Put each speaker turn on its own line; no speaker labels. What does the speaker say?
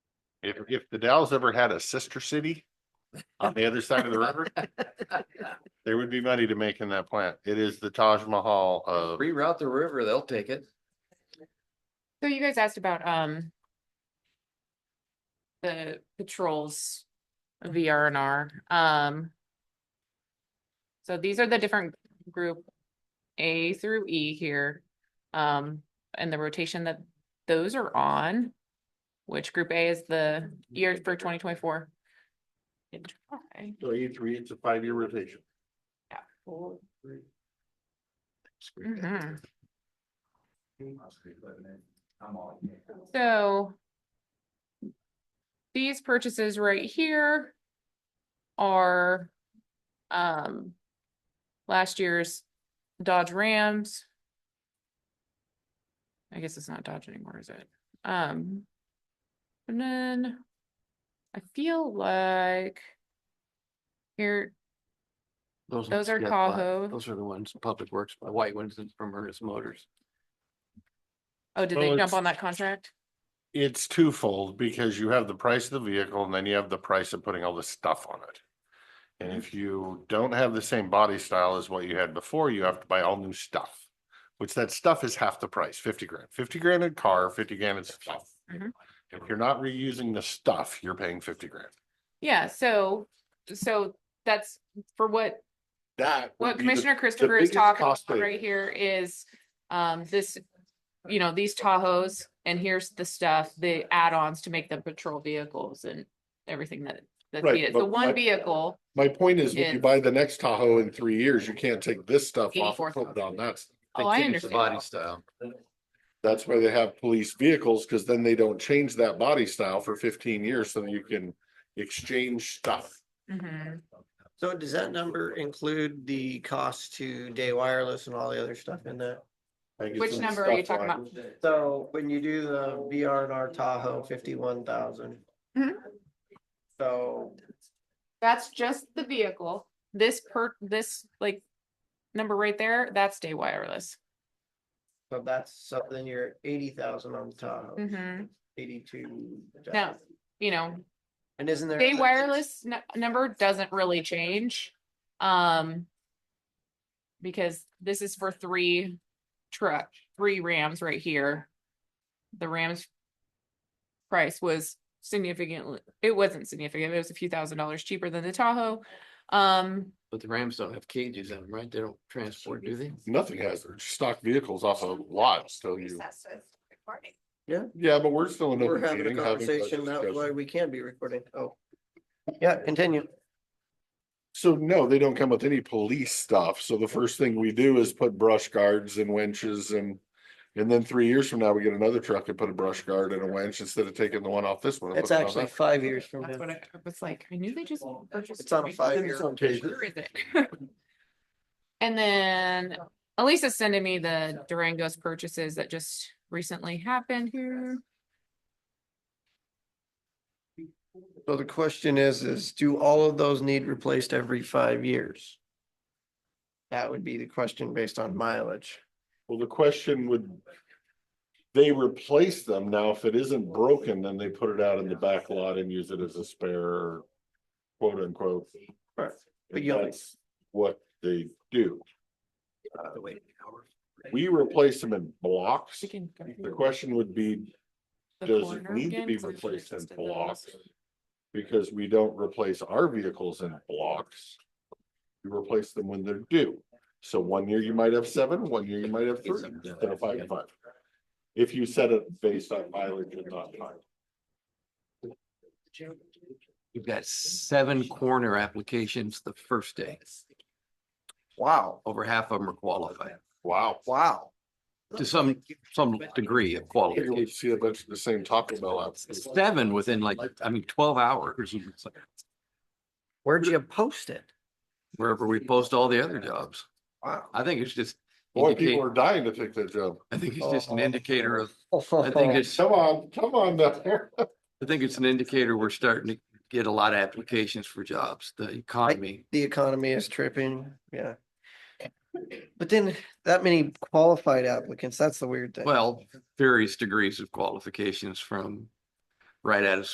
If, if the Dalles ever had a sister city on the other side of the river,
uh,
there would be money to make in that plant. It is the Taj Mahal of,
Reroute the river, they'll take it.
So you guys asked about, um. The patrols, VR and R, um. So these are the different group A through E here, um, and the rotation that those are on. Which group A is the year for twenty twenty-four?
so E three, it's a five-year rotation.
Mhm.
I'm all.
So. These purchases right here. Are. Um. Last year's Dodge Rams. I guess it's not Dodge anymore, is it? Um. And then. I feel like. Here, Those are Tahoe.
Those are the ones, Public Works, my white ones is from Ernest Motors.
oh, did they
Oh,
jump
it's-
on that contract?
It's twofold because you have the price of the vehicle and then you have the price of putting all this stuff on it. And if you don't have the same body style as what you had before, you have to buy all new stuff. Which that stuff is half the price, fifty grand, fifty grand in car, fifty grand in stuff.
Mhm.
If you're not reusing the stuff, you're paying fifty grand.
Yeah, so, so that's for what
That. would
What
be the-
Commissioner Christopher is
biggest
talking
cost
about
savings.
right here is, um, this, you know, these Tahoes, and here's the stuff, the add-ons to make them patrol vehicles and everything that, that's
Right,
needed. The
but
one
my-
vehicle,
My point is, when you
It's-
buy the next Tahoe in three years, you can't take this stuff off and put it
84,000.
on that. stuff.
oh, I
It's the Body
understand.
style.
That's why they have police vehicles, because then they don't change that body style for fifteen years, so you can exchange stuff.
Mhm.
So does that number include the cost to day wireless and all the other stuff in that?
I think it's
Which
in
number are you
stuff
talking
line.
about?
So when you do the VR and R Tahoe fifty-one thousand.
Mhm.
So
That's just the vehicle. This per, this like number right there, that's day wireless.
So that's, so then you're eighty thousand on the Tahoe,
Mm-hmm.
Mhm.
eighty-two.
Now, you know,
And isn't there?
Day wireless nu- number doesn't really change. Um. Because this is for three truck, three Rams right here. The Rams. Price was significantly, it wasn't significant, it was a few thousand dollars cheaper than the Tahoe. Um,
But the Rams don't have cages in them, right? They don't transport, do they?
Nothing has, they're stock vehicles off of lot, so you, yeah, but we're still in.
We're
open
having a
meeting, having
conversation,
budget
that's why
discussion.
we can be recording, oh. Yeah, continue.
So no, they don't come with any police stuff, so the first thing we do is put brush guards and winches and. And then three years from now, we get another truck and put a brush guard and a winch instead of taking the one off this one. and
It's
putting it on
actually
that.
five years from
that's
now.
what I I was like, I knew they just. purchased
It's on a
it.
five-year
Where is it? And then Elisa's sending me the Durango's purchases that just recently happened here.
So the question is, is do all of those need replaced every five years? That would be the question based on mileage.
Well, the question would. They replace them now. If it isn't broken, then they put it out in the back lot and use it as a spare. Quote unquote.
Right, but
If
you'll-
That's what they do.
Uh, wait.
We replace them in blocks.
We can go
The
through
question would be,
the
does it
corner
need to
again,
be
'cause I should've
replaced in
listed those.
blocks? Because we don't replace our vehicles in blocks. We replace them when they're due. So one year you might have seven, one year you might have three, instead of five and five. If you set it based on mileage and not time.
You've got seven corner applications the first day.
Wow,
Over half of them are qualified
Wow.
wow.
to some, some degree of
You
qualification.
see a bunch of the same Taco Bell app.
Seven within like, I mean, twelve hours, It's like
Where'd you post it?
wherever we post all the other jobs.
Wow.
I think it's just.
Boy, people
indicate-
are dying to take that job.
I think it's just an indicator of, I think it's,
Come on, come on now.
I think it's an indicator we're starting to get a lot of applications for jobs, the economy.
The economy is tripping, yeah. But then that many qualified applicants, that's the weird thing.
Well, various degrees of qualifications from right out of